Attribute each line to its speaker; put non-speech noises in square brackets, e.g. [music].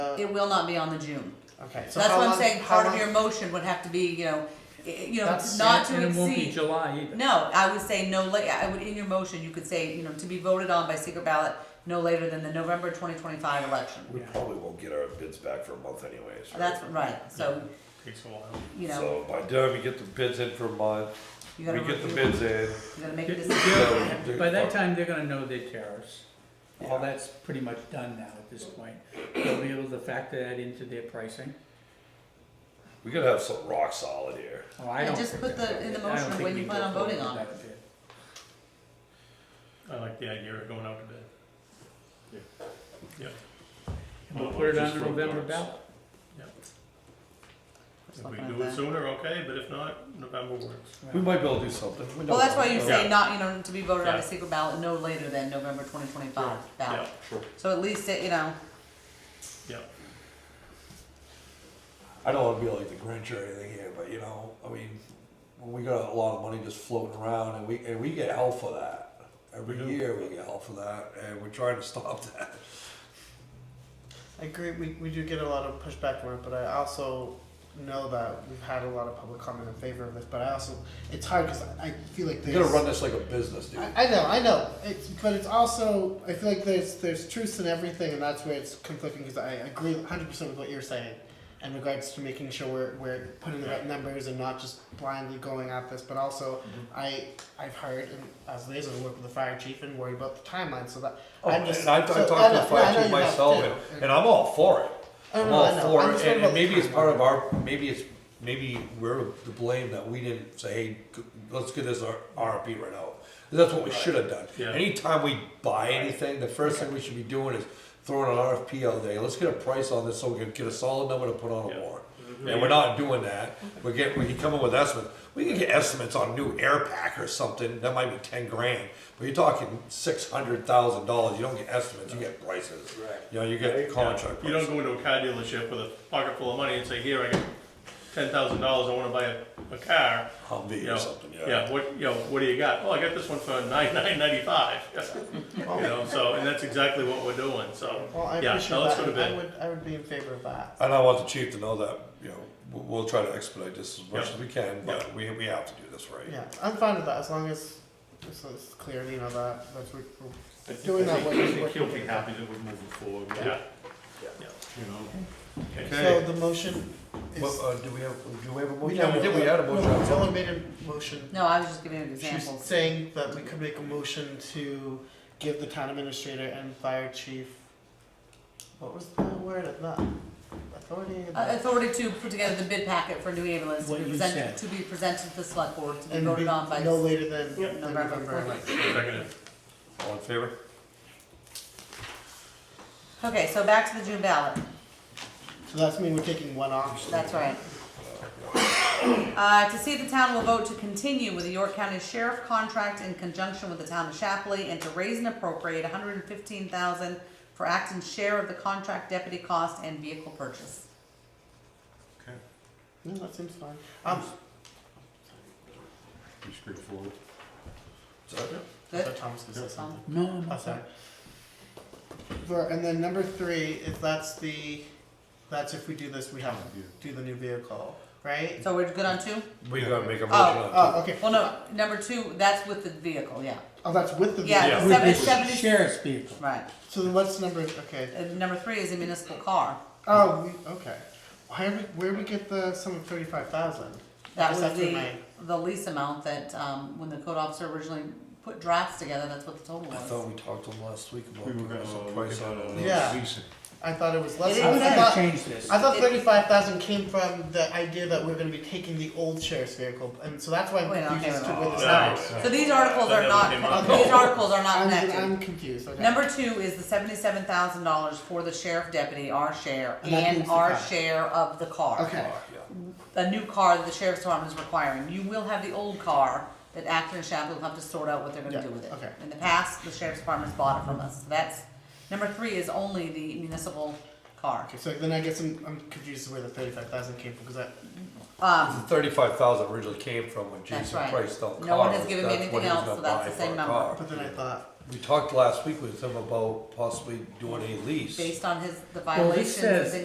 Speaker 1: It will not be on the June.
Speaker 2: Okay, so
Speaker 1: That's
Speaker 2: how
Speaker 1: what I'm
Speaker 2: long-
Speaker 1: saying,
Speaker 2: how
Speaker 1: part of
Speaker 2: long-
Speaker 1: your motion would have to be, you know, i- you know,
Speaker 2: That's-
Speaker 1: not to
Speaker 3: And it won't be
Speaker 1: exceed.
Speaker 3: July either.
Speaker 1: No, I would say no la, I would, in your motion, you could say, you know, to be voted on by secret ballot no later than the November twenty twenty-five election.
Speaker 4: We probably won't get our bids back for a month anyways. right?
Speaker 1: That's right, so,
Speaker 5: Takes a while.
Speaker 1: you know,
Speaker 4: So by the time we get the bids in for a month,
Speaker 1: you
Speaker 4: we
Speaker 1: gotta,
Speaker 4: get the
Speaker 1: review-
Speaker 4: bids in.
Speaker 1: you gotta make a
Speaker 3: Yeah,
Speaker 1: decision.
Speaker 4: they'll-
Speaker 3: By that time, they're gonna know their tariffs.
Speaker 4: Yeah.
Speaker 3: All that's pretty much done now at this point. They'll be able to factor that into their pricing.
Speaker 4: We gotta have some rock solid here.
Speaker 3: Oh, I
Speaker 1: And
Speaker 3: don't
Speaker 1: just
Speaker 3: think
Speaker 1: put
Speaker 3: that-
Speaker 1: the- in the
Speaker 3: I don't
Speaker 1: motion
Speaker 3: think
Speaker 1: when
Speaker 3: we
Speaker 1: you
Speaker 3: can
Speaker 1: plan on
Speaker 3: go
Speaker 1: voting
Speaker 3: forward
Speaker 1: on
Speaker 3: with that bid.
Speaker 5: I like the idea of going out to bid.
Speaker 3: And We'll
Speaker 5: Well,
Speaker 3: put it
Speaker 5: just
Speaker 3: on the
Speaker 5: vote
Speaker 3: November
Speaker 5: on it.
Speaker 3: ballot.
Speaker 1: Just
Speaker 5: If we
Speaker 1: looking at
Speaker 5: do it
Speaker 1: that.
Speaker 5: sooner, okay, but if not, November works.
Speaker 4: We might be able to do something. We
Speaker 1: Well,
Speaker 4: don't
Speaker 1: that's why
Speaker 4: know.
Speaker 1: you say not, you know, to be voted on
Speaker 5: Yeah.
Speaker 1: a secret ballot no later than November twenty twenty-five
Speaker 5: Yeah,
Speaker 1: ballot. So at least it, you know,
Speaker 5: yeah.
Speaker 4: I don't wanna be like the Grinch or anything here, but you know, I mean, we got a lot of money just floating around and we, and we get hell for that. Every
Speaker 5: We do.
Speaker 4: year we get hell for that and we're trying to stop [laughs] that.
Speaker 2: I agree. We, we do get a lot of pushback from it, but I also know that we've had a lot of public comment in favor of this. But I also it's hard because I, I feel like
Speaker 4: You
Speaker 2: there's
Speaker 4: gotta run this like a business, dude.
Speaker 2: I, I know, I know. It's but it's also I feel like there's there's truth in everything, and that's where it's conflicting. Because I agree 100 percent with what you're saying, in regards to making sure we're we're putting the right numbers and not just blindly going at this. But also,
Speaker 4: Mm-hmm.
Speaker 2: I I've heard and as liaison I work with the fire chief and worry about the timeline. So that
Speaker 4: Oh,
Speaker 2: I'm just
Speaker 4: and I've,
Speaker 2: so,
Speaker 4: I've
Speaker 2: I
Speaker 4: talked
Speaker 2: know, yeah,
Speaker 4: to the
Speaker 2: I
Speaker 4: fire
Speaker 2: know
Speaker 4: chief
Speaker 2: you have
Speaker 4: myself,
Speaker 2: too.
Speaker 4: and, and I'm all for it.
Speaker 2: I
Speaker 4: I'm
Speaker 2: know,
Speaker 4: all
Speaker 2: I know.
Speaker 4: for
Speaker 2: I'm
Speaker 4: it,
Speaker 2: just
Speaker 4: and,
Speaker 2: worried
Speaker 4: and maybe
Speaker 2: about
Speaker 4: it's
Speaker 2: the
Speaker 4: part of our, maybe it's, maybe we're to blame that we didn't say, hey, g- let's get this R- RFP right out. That's what we should have done.
Speaker 5: Yeah.
Speaker 4: Anytime we buy anything, the first thing we should be doing is throwing an RFP out there, let's get a price on this so we can get a solid number to put on a
Speaker 5: Yeah.
Speaker 4: warrant. And we're not doing that, we're getting, we can come up with estimates, we can get estimates on new air pack or something, that might be ten grand. But you're talking six hundred thousand dollars, you don't get estimates, you get prices. Right. You know, you get contract
Speaker 5: You don't
Speaker 4: prices.
Speaker 5: go into a car dealership with a pocket full of money and say, here, I got ten thousand dollars, I wanna buy a, a car. You
Speaker 4: Humvee
Speaker 5: know,
Speaker 4: or something, yeah.
Speaker 5: Yeah, what, you know, what do you got? Oh, I got this one for nine, nine ninety-five. [laughs] You know, so, and that's exactly what we're doing, so,
Speaker 2: Well, I
Speaker 5: yeah,
Speaker 2: appreciate
Speaker 5: no, let's
Speaker 2: that.
Speaker 5: go to
Speaker 2: and I
Speaker 5: bed.
Speaker 2: would I would be in favor of that.
Speaker 4: And I want the chief to know that, you know, we'll, we'll try to expedite this as much
Speaker 5: Yeah.
Speaker 4: as we can, but we, we have to do this right.
Speaker 2: Yeah, I'm fine with that as long as it's, it's clear, you know, that that's what we're
Speaker 6: I think-
Speaker 2: Doing
Speaker 6: I
Speaker 2: that
Speaker 6: think-
Speaker 2: way-
Speaker 6: I think he'll be
Speaker 2: working.
Speaker 6: happy that we're moving forward, with
Speaker 5: Yeah,
Speaker 6: it, you know.
Speaker 2: So
Speaker 4: Okay,
Speaker 2: the motion is.
Speaker 4: Well, uh, do we have, do we have a
Speaker 2: we
Speaker 4: motion?
Speaker 2: know
Speaker 4: Yeah, we
Speaker 2: what-
Speaker 4: did, we had a
Speaker 2: no,
Speaker 4: motion. on the floor.
Speaker 2: Zola made a motion.
Speaker 1: no, I was just giving you
Speaker 2: She's
Speaker 1: examples.
Speaker 2: saying that we could make a motion to give the town administrator and fire chief, what was the word of that? Authority?
Speaker 1: Uh, Authority to put together the bid packet for new ambulance to
Speaker 3: What
Speaker 1: be
Speaker 3: you
Speaker 1: presented,
Speaker 3: said.
Speaker 1: to be presented to the select board, to be
Speaker 2: And be
Speaker 1: voted on by
Speaker 2: no later than
Speaker 1: Yep.
Speaker 2: than
Speaker 1: November
Speaker 2: November.
Speaker 5: seconded.
Speaker 4: All in favor?
Speaker 1: Okay, so back to the June ballot,
Speaker 2: So that's mean we're taking one off.
Speaker 1: that's right. Uh, to see if the town will vote to continue with the York County Sheriff contract in conjunction with the town of Shapley and to raise and appropriate hundred and fifteen thousand for Acton's share of the contract deputy cost and vehicle purchase.
Speaker 2: No, that seems fine. Um,
Speaker 6: Be straightforward.
Speaker 4: Is that it?
Speaker 2: I
Speaker 1: Good?
Speaker 2: thought Thomas was gonna say something.
Speaker 3: No, I'm
Speaker 2: Oh,
Speaker 3: not-
Speaker 2: sorry. For- and then number three, if that's the, that's if we do this, we have to do the new vehicle, right?
Speaker 1: So we're good on two?
Speaker 4: We gotta make a motion
Speaker 1: Oh,
Speaker 4: on it.
Speaker 2: Oh, okay.
Speaker 1: Well, no, number two, that's with the vehicle, yeah,
Speaker 2: Oh, that's with the
Speaker 1: Yeah.
Speaker 2: vehicle.
Speaker 3: With
Speaker 1: Seven-
Speaker 3: the
Speaker 1: seventy-
Speaker 3: sheriff's vehicle.
Speaker 1: right.
Speaker 2: So then what's number? Okay.
Speaker 1: And number three is a municipal car.
Speaker 2: Oh, we, okay. Why are we, where we get the sum of thirty five thousand? Yes,
Speaker 1: That was
Speaker 2: that's what
Speaker 1: the,
Speaker 2: my-
Speaker 1: the lease amount that, um, when the code officer originally put drafts together, that's what the total
Speaker 4: I
Speaker 1: was.
Speaker 4: thought we talked to him last week about
Speaker 6: We were
Speaker 4: giving
Speaker 6: gonna
Speaker 4: us a
Speaker 6: look
Speaker 4: price
Speaker 6: at
Speaker 4: on
Speaker 6: uh,
Speaker 4: it.
Speaker 2: Yeah.
Speaker 6: leasing.
Speaker 2: I thought it was less.
Speaker 1: It
Speaker 2: I
Speaker 1: is
Speaker 3: I'm
Speaker 1: that-
Speaker 3: gonna
Speaker 2: thought,
Speaker 3: change this.
Speaker 2: I thought
Speaker 1: It-
Speaker 2: thirty five thousand came from the idea that we're going to be taking the old sheriff's vehicle, and so that's why I'm
Speaker 1: Wait,
Speaker 2: confused
Speaker 1: okay,
Speaker 2: as to
Speaker 1: wait,
Speaker 2: where
Speaker 1: wait,
Speaker 2: this
Speaker 1: wait.
Speaker 2: number.
Speaker 5: Sorry.
Speaker 1: So these articles
Speaker 5: That
Speaker 1: are
Speaker 5: never came
Speaker 1: not,
Speaker 2: up.
Speaker 1: these articles are not
Speaker 2: I'm,
Speaker 1: connected.
Speaker 2: I'm confused. Okay.
Speaker 1: Number two is the seventy-seven thousand dollars for the sheriff deputy, our share,
Speaker 2: And that
Speaker 1: and
Speaker 2: includes the
Speaker 1: our
Speaker 2: car.
Speaker 1: share of the car.
Speaker 2: Okay.
Speaker 1: A new car that the sheriff's department is requiring. You will have the old car that Acton and Shapley will have to sort out what they're gonna
Speaker 2: Yeah,
Speaker 1: do with it.
Speaker 2: okay.
Speaker 1: In the past, the sheriff's department's bought it from us. So That's, number three is only the municipal car.
Speaker 2: Okay, so then I guess I'm, I'm confused as to where the thirty-five thousand came from because I
Speaker 1: Um,
Speaker 4: The thirty-five thousand originally came from when
Speaker 1: That's
Speaker 4: Jason
Speaker 1: right.
Speaker 4: priced out cars.
Speaker 1: No one has given me
Speaker 4: That's
Speaker 1: anything
Speaker 4: what he was
Speaker 1: else,
Speaker 4: gonna
Speaker 1: so that's
Speaker 4: buy
Speaker 1: the
Speaker 4: for a
Speaker 1: same number.
Speaker 4: car.
Speaker 2: but then I thought
Speaker 4: we talked last week with him about possibly doing a lease.
Speaker 1: based on his, the
Speaker 3: Well,
Speaker 1: violations.
Speaker 3: this says
Speaker 1: that